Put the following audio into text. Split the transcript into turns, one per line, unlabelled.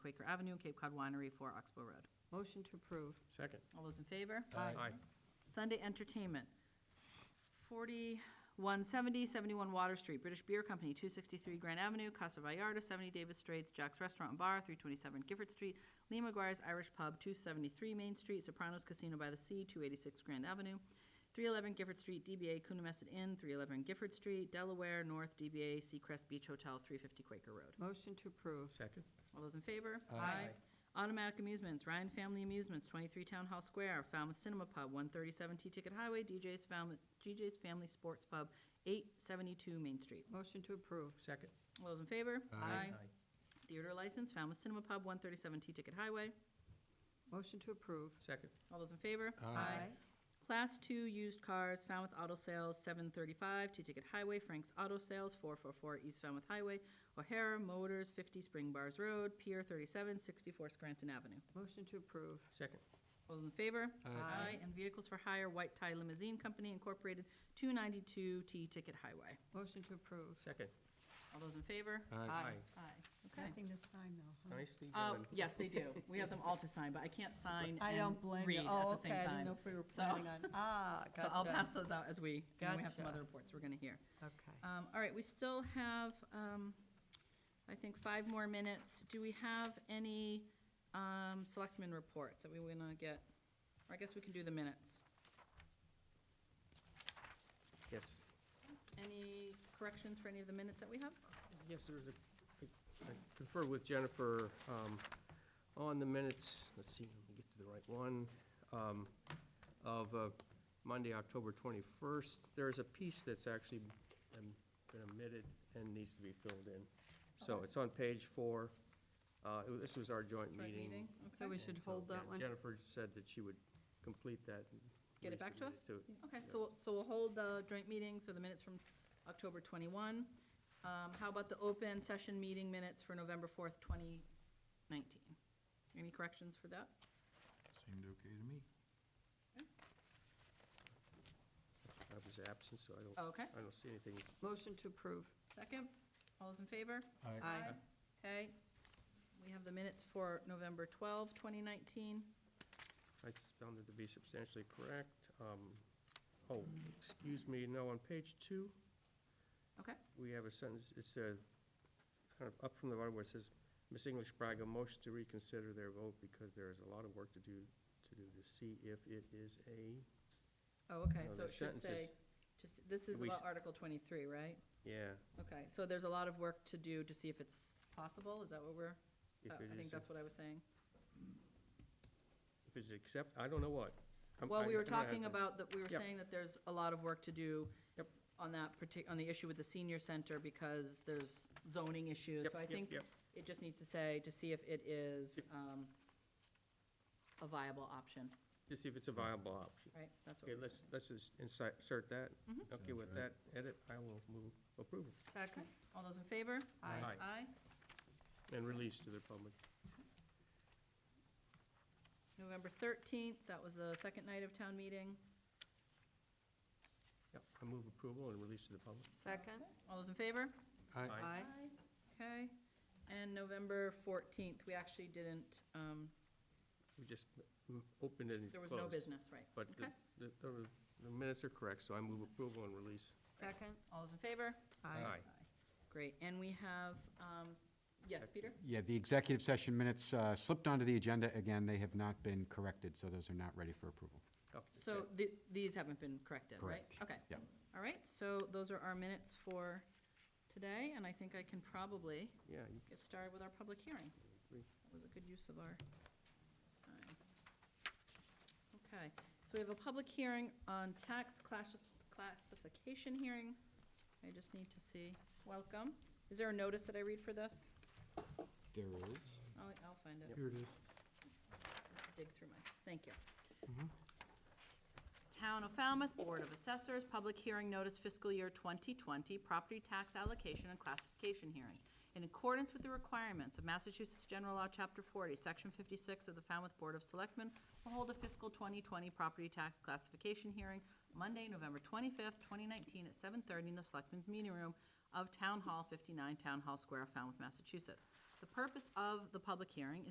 Quaker Avenue, Cape Cod Winery, 4 Oxbow Road.
Motion to approve.
Second.
All those in favor?
Aye.
Sunday entertainment, 4170, 71 Water Street, British Beer Company, 263 Grand Avenue, Casa Vallarta, 70 Davis Straits, Jack's Restaurant and Bar, 327 Gifford Street, Lee McGuire's Irish Pub, 273 Main Street, Sopranos Casino by the Sea, 286 Grand Avenue, 311 Gifford Street, DBA Coonamessett Inn, 311 Gifford Street, Delaware North, DBA Seacrest Beach Hotel, 350 Quaker Road.
Motion to approve.
Second.
All those in favor?
Aye.
Automatic Amusements, Ryan Family Amusements, 23 Town Hall Square, Falmouth Cinema Pub, 137 T-Ticket Highway, DJ's Falmouth, DJ's Family Sports Pub, 872 Main Street.
Motion to approve.
Second.
All those in favor? Theater license, Falmouth Cinema Pub, 137 T-Ticket Highway.
Motion to approve.
Second.
All those in favor? Class 2 used cars, Falmouth Auto Sales, 735 T-Ticket Highway, Frank's Auto Sales, 444 East Falmouth Highway, O'Hara Motors, 50 Spring Bars Road, Pier 37, 64 Scranton Avenue.
Motion to approve.
Second.
All those in favor?
Aye.
And Vehicles for Hire White Tie Limousine Company Incorporated, 292 T Ticket Highway.
Motion to approve.
Second.
All those in favor?
Aye.
Aye. Okay.
Nothing to sign, though, huh?
Nicely
Uh,
done.
yes, they do. We have them all to sign, but I can't sign
I don't
and
blame
read at
you. Oh,
the
okay,
same
I didn't know
time.
if we were
So-
planning on, ah, gotcha.
So I'll pass those out as we, and we have some
Gotcha.
other reports we're gonna hear.
Okay.
Um, all right, we still have, um, I think five more minutes. Do we have any, um, selectmen reports that we wanna get? Or I guess we can do the minutes.
Yes.
Any corrections for any of the minutes that we have?
Yes, there was a, I conferred with Jennifer um, on the minutes, let's see, let me get to the right one, um, of uh, Monday, October 21st. There is a piece that's actually um, been omitted and needs to be filled in. So
Okay.
it's on page four. Uh, it was- This was our joint
Joint
meeting.
meeting, okay.
So we should
And so,
hold that
yeah,
one?
Jennifer said that she would complete that. and
Get it back to
resubmit
us? Okay, so, we'll- so we'll hold the joint meeting, so the minutes from October 21. Um, How about the open session meeting minutes for November 4th, 2019? Any corrections for that?
Seemed okay to me.
I was absent, so I don't,
Okay.
I don't see anything
Motion to approve.
Second? All those in favor?
Aye.
Aye.
Okay. We have the minutes for November 12, 2019.
I found it to be substantially correct. Um, Oh, excuse me, no, on page two,
Okay,
we have a sentence, it's uh kind of up from the bottom where it says, Miss English Braga motions to reconsider their vote because there is a lot of work to do, to do to see if it is a,
oh, okay,
No,
so
the
it should
sentence
say,
is-
just, this is
We s-
about Article 23, right?
yeah,
Okay, so there's a lot of work to do to see if it's possible, is that what we're,
if
I
it
Oh, I think
is,
that's
if
what I was saying.
it's accept, I don't know what. I'm-
Well, we were
I'm gonna have
talking
to-
about, that we were
Yep.
saying that there's a lot of work to do
Yep.
on that partic, on the issue with the senior center because there's zoning issues.
Yep,
So I
yep,
think
yep.
it just needs to say, to see if it is um, a viable option,
To see if it's a viable option.
right? That's what
Okay,
we're
let's, let's just insert insert that.
Mm-hmm.
Okay, with that
Sounds
edit, I will move approval
Second.
All those in favor?
Aye.
Aye.
Aye.
and release to the public.
November 13th, that was the second night of town meeting.
Yep, I move approval and release to the public.
Second.
All those in favor?
Aye.
Aye. Okay. And November 14th, we actually didn't, um,
We just mm, opened it and closed.
there was no business, right?
But the-
Okay.
the, the the minutes are correct, so I move approval and release.
Second.
All those in favor?
Aye.
Great, and we have, um, yes, Peter?
Yeah, the executive session minutes uh, slipped onto the agenda again. They have not been corrected, so those are not ready for approval.
Oh,
So
okay.
th- these haven't been corrected, right?
Correct.
Okay.
Yeah.
All right, so those are our minutes for today, and I think I can probably
Yeah, you
get started with our public hearing.
agree.
That was a good use of our time. Okay, so we have a public hearing on tax class- classification hearing. I just need to see, welcome. Is there a notice that I read for this?
There is.
I'll, I'll find it.
Here it is.
dig through my, thank you. Town of Falmouth Board of Assessors, public hearing notice fiscal year 2020, property tax allocation and classification hearing. In accordance with the requirements of Massachusetts General Law, Chapter 40, Section 56 of the Falmouth Board of Selectmen, will hold a fiscal 2020 property tax classification hearing Monday, November 25th, 2019, at 7:30 in the Selectmen's Meeting Room of Town Hall 59, Town Hall Square, Falmouth, Massachusetts. The purpose of the public hearing is